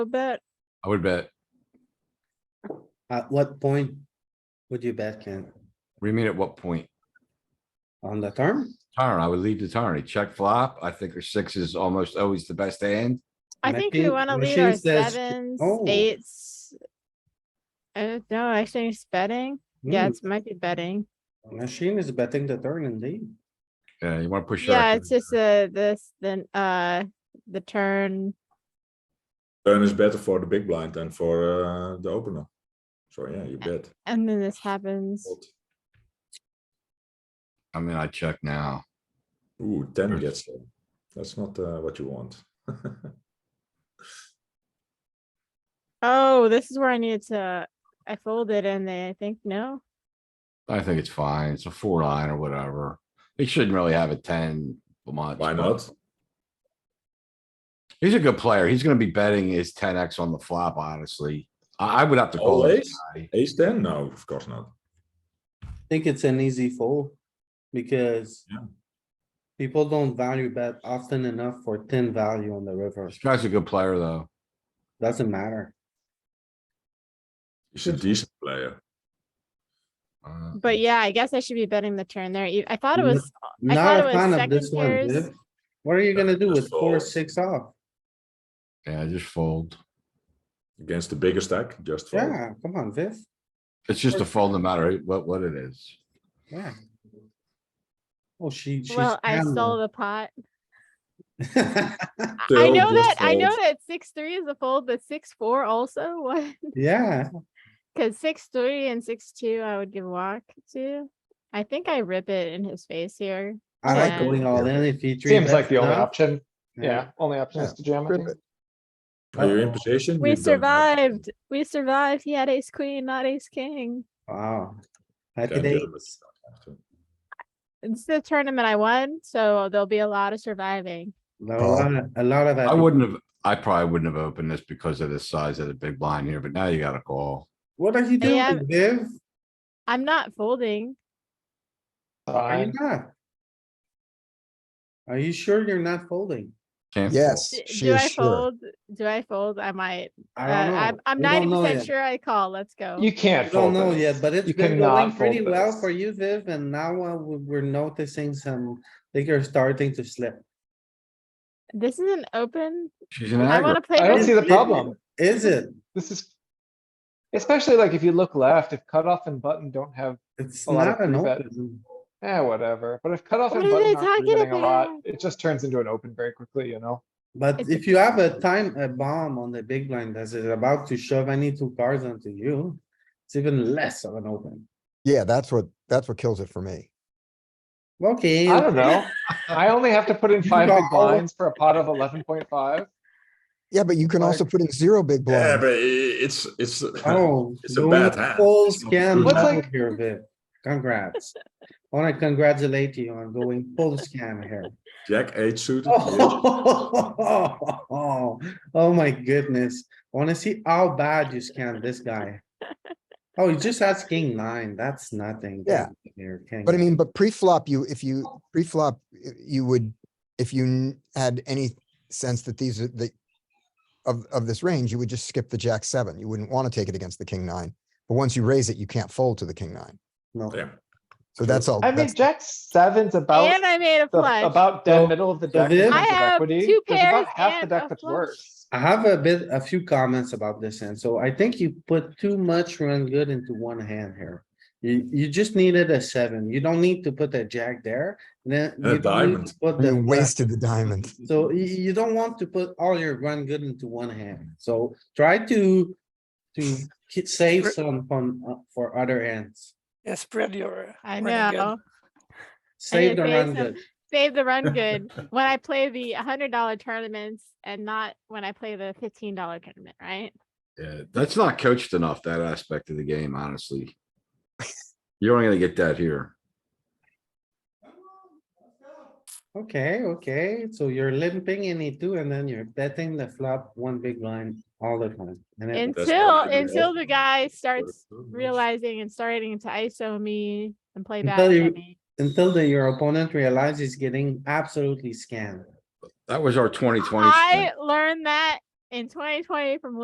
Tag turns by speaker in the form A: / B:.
A: a bet.
B: I would bet.
C: At what point would you bet Ken?
B: What do you mean at what point?
C: On the turn?
B: Turn, I would lead the turn. He check flop. I think her six is almost always the best hand.
A: I
C: My
A: think we
C: pin-
A: wanna
C: my
A: lead
C: shin
A: our
C: says-
A: sevens,
C: oh.
A: eights. I don't know, actually it's betting. Yeah,
C: Hmm,
A: it's might be betting.
C: Machine is betting the turn indeed.
B: Yeah, uh, you wanna push. her
A: Yeah,
B: after
A: it's
B: the
A: just uh this, then uh, the turn.
D: Turn is better for the big blind than for uh, the opener. So yeah, you bet.
A: And then this happens.
B: turn. I mean, I check now.
D: Ooh, ten
B: Yes.
D: gets there. That's not uh, what you want.
A: Oh, this is where I needed to, I folded and then I think, no,
B: I think it's fine. It's a four line or whatever. He shouldn't really have a ten. much,
D: Why
B: but
D: not?
B: He's a good player. He's gonna be betting his ten X on the flop, honestly. I, I would have to call it.
D: Always? Ace ten? No, of course not.
C: Think it's an easy fold because
D: Yeah.
C: people don't value bet often enough for ten value on the river.
B: This guy's a good player, though.
C: Doesn't matter.
D: He's a decent player.
B: Uh,
A: but yeah, I guess I should be betting the turn there. E- I thought it
C: No.
A: was, I
C: Not
A: thought
C: a
A: it was
C: fan of this
A: second
C: one,
A: pairs.
C: Viv. What are you gonna do with
D: Just
C: four,
D: fold.
C: six off?
B: Yeah, just fold.
D: Against the bigger stack, just for
C: Yeah, come on, Viv.
B: It's just a fold no matter what, what it is.
C: Yeah. Oh, she, she's.
A: well, I
C: scammed
A: stole the pot.
C: them.
A: I- I
D: Still
A: know that,
D: just
A: I know
D: fold.
A: that six, three is a fold, but six, four also, what?
C: Yeah,
A: Cause six three and six two, I would give walk to. I think I rip it in his face here.
C: I like
A: Yeah.
C: going all in if he. three
E: Seems like
C: bets
E: the only
C: enough.
E: option. Yeah, only option
C: Yeah.
E: is to jam. I
F: Rip
E: think.
F: it.
D: Are you in position?
A: We
D: You don't have-
A: survived. We survived. He had ace queen, not ace king.
C: Wow.
D: Can
C: Happy
D: do it, but
C: days.
D: you don't have to.
A: It's the tournament I won, so there'll be a lot of surviving.
C: There are A lot of- a lot of.
B: I
C: happy-
B: wouldn't have, I probably wouldn't have opened this because of the size of the big blind here, but now you gotta call.
C: What are you
A: Yeah.
C: doing, Viv?
A: I'm not folding.
C: Are you
E: Fine.
C: not? Are you sure you're not folding?
B: Can't. fold.
F: Yes,
A: D-
F: she
A: Do
F: is
A: I
F: sure.
A: fold? Do I fold? I might.
C: I
A: Uh,
C: don't know.
A: I'm, I'm
C: We don't
A: ninety
C: know
A: percent
C: yet.
A: sure I call. Let's go.
E: You can't.
C: We Don't
E: fold
C: know
E: this.
C: yet, but it's
E: You
C: been
E: cannot
C: going pretty
E: fold this.
C: well for you, Viv, and now uh, we- we're noticing some, like you're starting to slip.
A: This isn't open.
B: She's an
A: I
B: aggro.
A: wanna play.
E: I don't
A: this
E: see the
A: deep.
E: problem.
C: Is it?
E: This is. Especially like if you look left, if cutoff and button don't have,
C: It's
E: A lot
C: not
E: of
C: an
E: three bet.
C: open.
E: eh, whatever, but if cutoff and
A: What are they
E: button aren't
A: talking
E: reading a lot,
A: about?
E: it just turns into an open very quickly, you know?
C: But
A: It's
C: if you have a time, a bomb on the big blind that is about to shove any two cards onto you, it's even less of an open.
F: Yeah, that's what, that's what kills it for me.
C: Okay.
E: I don't know. I only have to put in
C: You
E: five
C: got
E: big
C: all-
E: blinds for a pot of eleven point five.
F: Yeah, but you can also
E: Like-
F: put in zero big
D: Yeah,
F: blind.
D: but i- it's it's.
C: Oh.
D: It's a
C: you
D: bad hand.
C: Full
D: It's not
C: scan
E: good. Looks
C: mode
E: like-
C: here, Viv. Congrats. Wanna congratulate you on going full scan here.
D: Jack eight suited. yes.
C: Oh my goodness. Wanna see how bad you scanned this guy? Oh, you just has king nine. That's nothing.
F: Yeah.
C: Here, king.
F: But I mean, but pre-flop, you, if you, pre-flop, y- you would, if you n- had any sense that these are the, of, of this range, you would just skip the jack seven. You wouldn't want to take it against the king nine. But once you raise it, you can't fold to the king nine.
C: No.
D: Yeah.
F: So that's all.
E: I mean,
F: that's-
E: jack seven's about,
A: And I made a
E: the-
A: flush.
E: about dead
C: So-
E: middle of the
C: so
E: deck. in
C: Viv-
E: terms
C: I
E: of
A: have
E: equity.
A: two
E: There's about
A: pairs
E: half the
A: and
E: deck
A: a
E: that's
A: flush.
E: worse.
C: I have a bit, a few comments about this, and so I think you put too much run good into one hand here. You, you just needed a seven. You don't need to put a jack there, and then.
D: a
C: you don't need
D: diamond.
C: to Put
F: You
C: the
F: wasted the diamond.
C: So you, you don't want to put all your run good into one hand, so try to, to ki- save some fun uh, for other hands.
G: Yeah, spread your.
A: I
G: running
A: know.
G: gun.
A: did
C: Save the
A: save
C: run
A: some.
C: good.
A: save the run good when I play the hundred dollar tournaments and not when I play the fifteen dollar tournament, right?
B: Yeah, that's not coached enough, that aspect of the game, honestly. You're only gonna get that here.
C: Okay, okay, so you're limping in it too, and then you're betting the flop one big line all the time. and it-
D: And- that's
A: Until
D: probably the
A: until
D: real-
A: the guy starts
D: Yes.
A: realizing and starting to ISO me and play
C: Until
A: back
C: you-
A: at me.
C: Until the, your opponent realizes he's getting absolutely scammed.
B: That was our twenty twenty.
A: I learned that in twenty twenty from